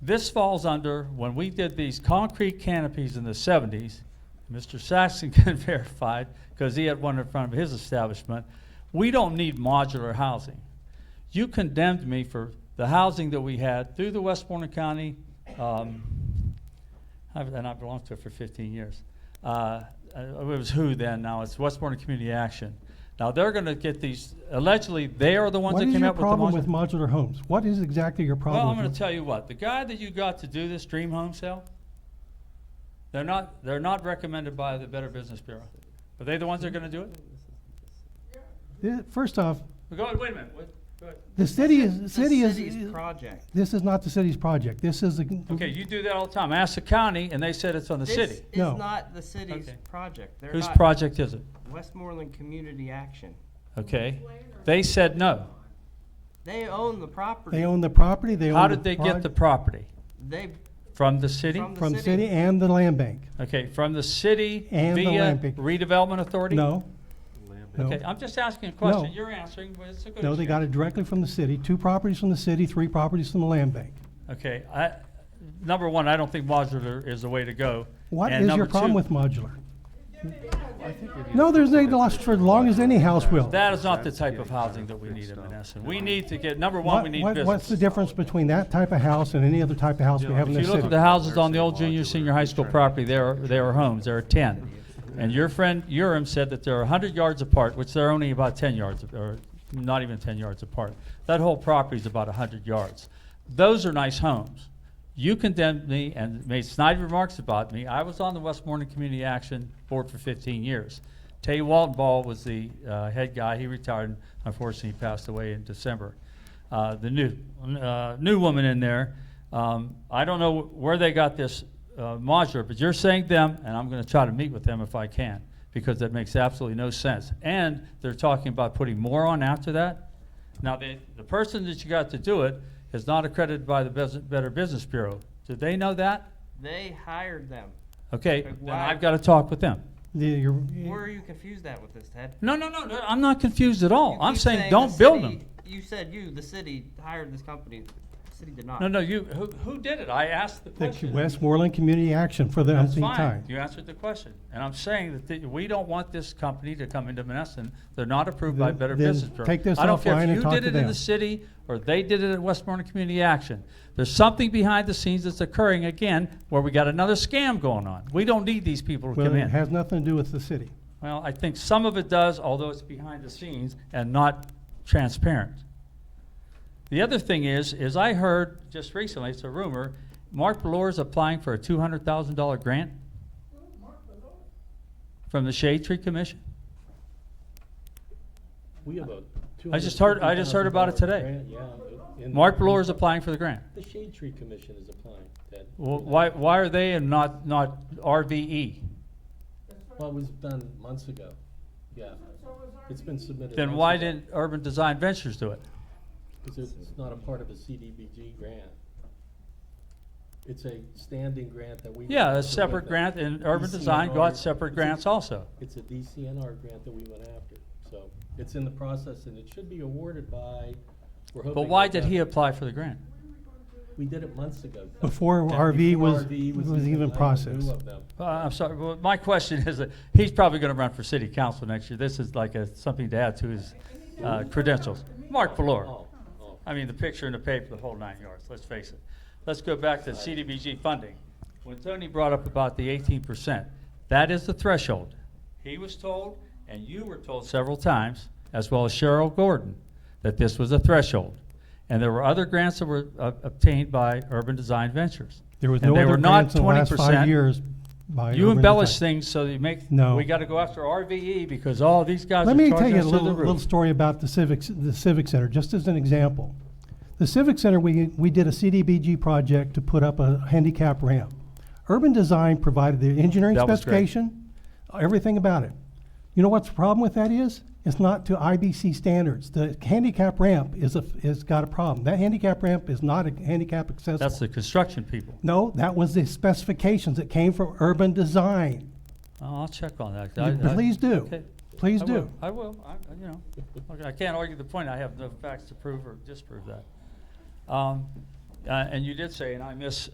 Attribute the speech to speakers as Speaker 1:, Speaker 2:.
Speaker 1: This falls under, when we did these concrete canopies in the seventies, Mr. Saxon can verify, because he had one in front of his establishment, we don't need modular housing. You condemned me for the housing that we had through the Westmoreland County, um, I've, and I've belonged to it for fifteen years. Uh, uh, it was who then, now it's Westmoreland Community Action. Now, they're gonna get these, allegedly, they are the ones
Speaker 2: What
Speaker 1: that
Speaker 2: is
Speaker 1: came
Speaker 2: your
Speaker 1: up with the modular.
Speaker 2: problem with modular homes? What is exactly your problem?
Speaker 1: Well, I'm
Speaker 2: with
Speaker 1: going
Speaker 2: mo-
Speaker 1: to tell you what the guy that you got to do this dream home sale, they're not they're not recommended by the Better Business Bureau. Are they the ones that are going to do it?
Speaker 2: Thi- First off,
Speaker 1: Go ahead. Wait a minute. Wait, go ahead.
Speaker 2: the city is, the city
Speaker 3: city's
Speaker 2: is,
Speaker 3: project.
Speaker 2: this is not the city's project. This is the.
Speaker 1: Okay, you do that all the time. Ask the county, and they said it's on the
Speaker 3: This
Speaker 1: city.
Speaker 3: is
Speaker 2: No.
Speaker 3: not the city's
Speaker 1: Okay.
Speaker 3: project. They're
Speaker 1: Whose
Speaker 3: not-
Speaker 1: project is it?
Speaker 3: Westmoreland Community Action.
Speaker 1: Okay, they said no.
Speaker 3: They own the property.
Speaker 2: They own the property, they own.
Speaker 1: How
Speaker 2: the
Speaker 1: did they
Speaker 2: proj-
Speaker 1: get the property
Speaker 3: They,
Speaker 1: from the city?
Speaker 3: From the-
Speaker 2: From
Speaker 3: city?
Speaker 2: city and the land bank.
Speaker 1: okay, from the city
Speaker 2: And the
Speaker 1: via
Speaker 2: land bank.
Speaker 1: redevelopment authority.
Speaker 2: No, no.
Speaker 1: Okay, I'm just asking a question.
Speaker 2: No.
Speaker 1: You're answering, but it's a good.
Speaker 2: No, they
Speaker 1: exchange.
Speaker 2: got it directly from the city, two properties from the city, three properties from the land bank.
Speaker 1: Okay, I, number one, I don't think modular is the way to go.
Speaker 2: What
Speaker 1: And
Speaker 2: is
Speaker 1: number
Speaker 2: your problem
Speaker 1: two,
Speaker 2: with modular? No, there's no loss for as long as any house will.
Speaker 1: That is not the type of housing that we need in Menneson. We need to get, number one,
Speaker 2: What-
Speaker 1: we need
Speaker 2: what- What's the
Speaker 1: business.
Speaker 2: difference between that type of house and any other type of house we have in
Speaker 1: If
Speaker 2: this
Speaker 1: you look at
Speaker 2: city?
Speaker 1: the houses on the old junior, senior high school property, there are, there are homes, there are ten. And your friend Urim said that they're hundred yards apart, which they're only about ten yards, or not even ten yards apart. That whole property's about hundred yards. Those are nice homes. You condemned me and made snide remarks about me. I was on the Westmoreland Community Action Board for fifteen years. Tay Walton Ball was the, uh, head guy. He retired and unfortunately he passed away in December uh, the new uh, new woman in there. Um, I don't know where they got this uh, modular, but you're saying them, and I'm going to try to meet with them if I can, because that makes absolutely no sense. And they're talking about putting more on after that. Now, the the person that you got to do it is not accredited by the Bus- Better Business Bureau. Did they know that?
Speaker 3: they hired them.
Speaker 1: Okay,
Speaker 3: Like,
Speaker 1: then
Speaker 3: why-
Speaker 1: I've got to talk with them.
Speaker 2: The- your-
Speaker 3: Where are you confused at with this, Ted?
Speaker 1: No, no, no, no, I'm not confused at all.
Speaker 3: You
Speaker 1: I'm
Speaker 3: keep
Speaker 1: saying,
Speaker 3: the
Speaker 1: don't build
Speaker 3: city-
Speaker 1: them.
Speaker 3: You said you, the city, hired this company. The city did not.
Speaker 1: No, no, you, who, who did it? I asked the
Speaker 2: The
Speaker 1: question.
Speaker 2: Westmoreland Community Action for the
Speaker 1: That's
Speaker 2: umpteenth
Speaker 1: fine.
Speaker 2: time.
Speaker 1: You answered the question. And I'm saying that the, we don't want this company to come into Menneson. They're not approved by
Speaker 2: Then-
Speaker 1: Better
Speaker 2: then
Speaker 1: Business Bureau.
Speaker 2: take this
Speaker 1: I don't care
Speaker 2: offline
Speaker 1: if
Speaker 2: and
Speaker 1: you
Speaker 2: talk
Speaker 1: did
Speaker 2: to
Speaker 1: it in the
Speaker 2: them.
Speaker 1: city or they did it at Westmoreland Community Action. There's something behind the scenes that's occurring again where we got another scam going on. We don't need these people to
Speaker 2: Well,
Speaker 1: come
Speaker 2: it
Speaker 1: in.
Speaker 2: has nothing to do with the city.
Speaker 1: Well, I think some of it does, although it's behind the scenes and not transparent. The other thing is, is I heard just recently, it's a rumor, Mark Belor is applying for a two hundred thousand dollar grant from the Shade Tree Commission.
Speaker 4: We have a
Speaker 1: I just heard- I just heard about it today.
Speaker 4: $250,000 grant, yeah, in-
Speaker 1: Mark Belor is applying for the grant.
Speaker 4: The Shade Tree Commission is applying that.
Speaker 1: Wh- Why, why are they and not, not E? RVE?
Speaker 4: Well, it was done months ago, yeah. It's been submitted.
Speaker 1: Then
Speaker 4: months
Speaker 1: why
Speaker 4: ago.
Speaker 1: didn't Urban Design Ventures do it?
Speaker 4: Because it's not a part of a CDBG grant. It's a standing grant that we. went
Speaker 1: Yeah,
Speaker 4: after
Speaker 1: a
Speaker 4: with
Speaker 1: separate
Speaker 4: them.
Speaker 1: grant and Urban
Speaker 4: DCNR
Speaker 1: Design got separate
Speaker 4: E. it's a-
Speaker 1: grants also.
Speaker 4: It's a DCNR grant that we went after, so it's in the process and it should be awarded by, we're hoping.
Speaker 1: But why
Speaker 4: that
Speaker 1: did he apply for the grant?
Speaker 4: We did it months ago.
Speaker 2: Before RV
Speaker 4: Before
Speaker 2: was, was
Speaker 4: RV
Speaker 2: even
Speaker 4: allowed, we knew
Speaker 2: processed.
Speaker 4: of them.
Speaker 1: Uh, I'm sorry, well, my question is, that he's probably gonna run for city council next year. This is like a, something to add to his uh, credentials. Mark Valor.
Speaker 4: Oh, oh.
Speaker 1: I mean, the picture in the paper, the whole nine yards, let's face it. Let's go back to CDBG funding. When Tony brought up about the eighteen percent, that is the threshold. He was told, and you were told several times, as well as Cheryl Gordon, that this was a threshold. And there were other grants that were uh, obtained by Urban Design Ventures.
Speaker 2: There was
Speaker 1: And
Speaker 2: no
Speaker 1: they
Speaker 2: other
Speaker 1: were not
Speaker 2: grants in the last
Speaker 1: 20%.
Speaker 2: five years by
Speaker 1: You
Speaker 2: urban
Speaker 1: embellish
Speaker 2: design.
Speaker 1: things so that you make,
Speaker 2: No.
Speaker 1: we gotta go after RVE because all these guys are
Speaker 2: Let me tell
Speaker 1: charging
Speaker 2: you a
Speaker 1: us through
Speaker 2: little,
Speaker 1: the
Speaker 2: little
Speaker 1: roof.
Speaker 2: story about the civics, the civic center, just as an example. The civic center, we, we did a CDBG project to put up a handicap ramp. Urban Design provided the engineering
Speaker 1: That was great.
Speaker 2: specification, everything about it. You know what's the problem with that is? It's not to IBC standards. The handicap ramp is a, is got a problem. That handicap ramp is not a handicap accessible.
Speaker 1: That's the construction people.
Speaker 2: No, that was the specifications that came from Urban Design.
Speaker 1: Oh, I'll check on that.
Speaker 2: You-
Speaker 1: I- I-
Speaker 2: Please do,
Speaker 1: okay.
Speaker 2: please
Speaker 1: I
Speaker 2: do.
Speaker 1: will. I will, I, I- you know, okay, I can't argue the point, I have no facts to prove or disprove that. Um, Uh, and you did say, and I miss,